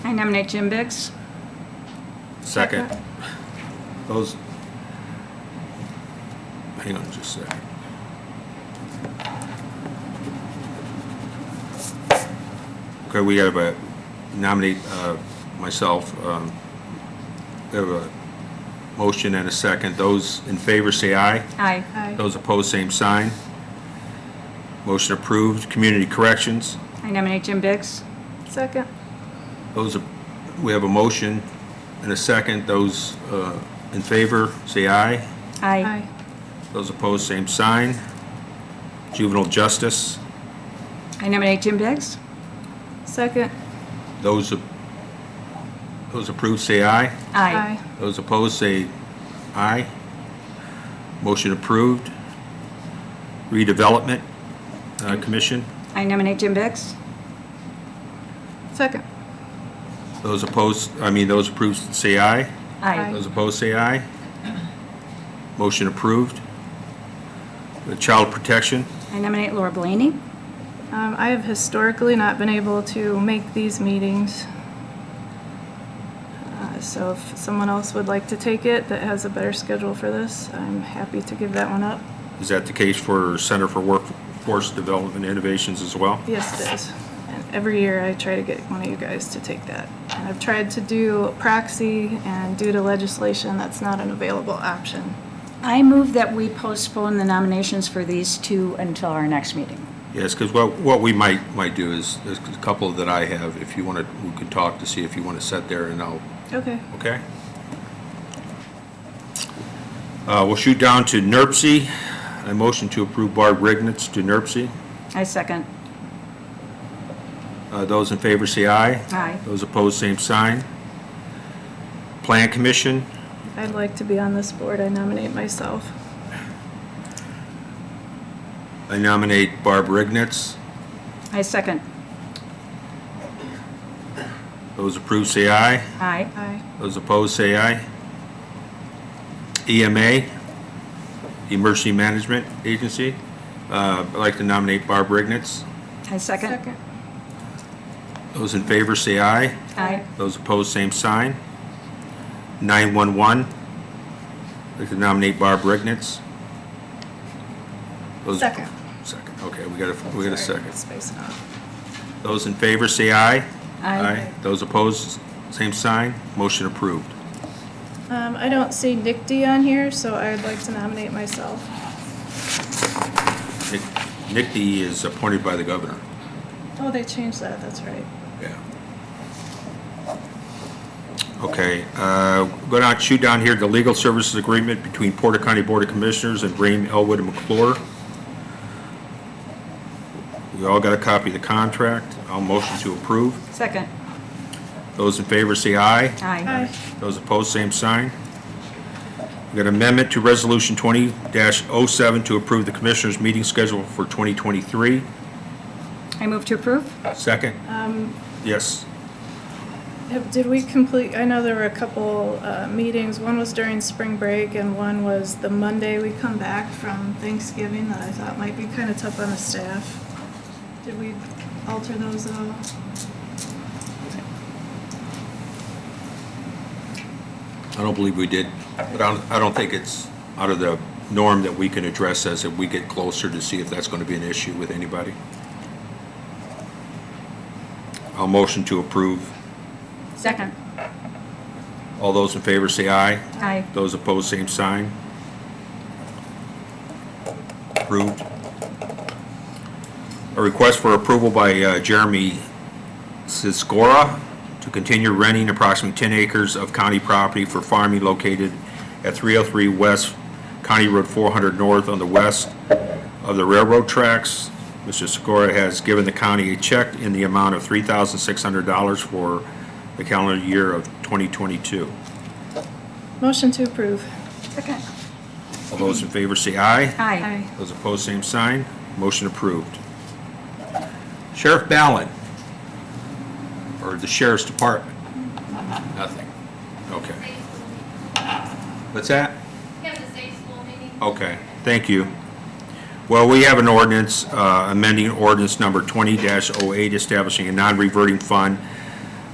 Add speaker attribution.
Speaker 1: I nominate Jim Biggs.
Speaker 2: Second. Those, hang on just a second. Okay, we have a nominate uh, myself. um, We have a motion and a second. Those in favor say aye.
Speaker 1: Aye.
Speaker 3: Aye.
Speaker 2: Those opposed, same sign. Motion approved. Community corrections.
Speaker 1: I nominate Jim Biggs.
Speaker 3: Second.
Speaker 2: Those, are- we have a motion and a second. Those uh, in favor, say aye.
Speaker 1: Aye.
Speaker 3: Aye.
Speaker 2: Those opposed, same sign. Juvenile justice,
Speaker 1: I nominate Jim Biggs.
Speaker 3: Second.
Speaker 2: those, a- those approved, say aye.
Speaker 1: Aye.
Speaker 2: Those opposed, say aye. Motion approved. Redevelopment uh, Commission,
Speaker 1: I nominate Jim Biggs.
Speaker 3: Second.
Speaker 2: those opposed, I mean, those approved, say aye.
Speaker 1: Aye.
Speaker 2: Those opposed, say aye. Motion approved. The Child Protection,
Speaker 1: I nominate Laura Blaney.
Speaker 3: Um, I have historically not been able to make these meetings. Uh, So if someone else would like to take it that has a better schedule for this, I'm happy to give that one up.
Speaker 2: is that the case for Center for Workforce Development Innovations as well?
Speaker 3: Yes, it is. And every year I try to get one of you guys to take that. And I've tried to do proxy and due to legislation, that's not an available option.
Speaker 1: I move that we postpone the nominations for these two until our next meeting.
Speaker 2: Yes, because what, what we might, might do is, there's a couple that I have, if you want to, we could talk to see if you want to sit there and I'll,
Speaker 3: Okay.
Speaker 2: okay? Uh, we'll shoot down to NERC. I motion to approve Barb Rignitz to NERC.
Speaker 1: I second.
Speaker 2: Uh, those in favor say aye.
Speaker 1: Aye.
Speaker 2: Those opposed, same sign. Plan Commission,
Speaker 3: I'd like to be on this board. I nominate myself.
Speaker 2: I nominate Barb Rignitz.
Speaker 1: I second.
Speaker 2: Those approved say aye.
Speaker 1: Aye.
Speaker 3: Aye.
Speaker 2: Those opposed say aye. EMA, Emergency Management Agency, Uh, I'd like to nominate Barb Rignitz.
Speaker 1: I second.
Speaker 2: Those in favor say aye.
Speaker 1: Aye.
Speaker 2: Those opposed, same sign. 911, I'd like to nominate Barb Rignitz. Those-
Speaker 3: Second.
Speaker 2: Second, okay, we got a, we got a
Speaker 3: Sorry,
Speaker 2: second.
Speaker 3: spacing out.
Speaker 2: Those in favor say aye.
Speaker 1: Aye.
Speaker 2: Those opposed, same sign. Motion approved.
Speaker 3: Um, I don't see Nick D on here, so I'd like to nominate myself.
Speaker 2: Nick Nick D is appointed by the governor.
Speaker 3: Oh, they changed that, that's right.
Speaker 2: Yeah. Okay, uh, go down, shoot down here, the legal services agreement between Porter County Board of Commissioners and Bream, Elwood, and McClure. We all got a copy of the contract. I'll motion to approve.
Speaker 1: Second.
Speaker 2: Those in favor say aye.
Speaker 1: Aye.
Speaker 3: Aye.
Speaker 2: Those opposed, same sign. We got amendment to Resolution 20-07 to approve the Commissioners' meeting schedule for 2023.
Speaker 1: I move to approve.
Speaker 2: Second? Yes.
Speaker 3: Have- Did we complete, I know there were a couple, uh, meetings, one was during spring break and one was the Monday we come back from Thanksgiving that I thought might be kinda tough on the staff. Did we alter those at all?
Speaker 2: I don't believe we did, but I don't, I don't think it's out of the norm that we can address as if we get closer to see if that's going to be an issue with anybody. I'll motion to approve.
Speaker 1: Second.
Speaker 2: All those in favor say aye.
Speaker 1: Aye.
Speaker 2: Those opposed, same sign. Approved. A request for approval by uh, Jeremy Siskora to continue renting approximately 10 acres of county property for farming located at 303 West County Road 400 North on the west of the railroad tracks. Mr. Sikora has given the county a check in the amount of $3,600 for the calendar year of 2022.
Speaker 3: Motion to approve.
Speaker 1: Second.
Speaker 2: All those in favor say aye.
Speaker 1: Aye.
Speaker 2: Those opposed, same sign. Motion approved. Sheriff Ballin, or the Sheriff's Department? Nothing. Okay. What's that?
Speaker 4: We have the state school meeting.
Speaker 2: Okay, thank you. Well, we have an oh ordinance, uh, amending ordinance number 20-08, establishing a non-reverting fund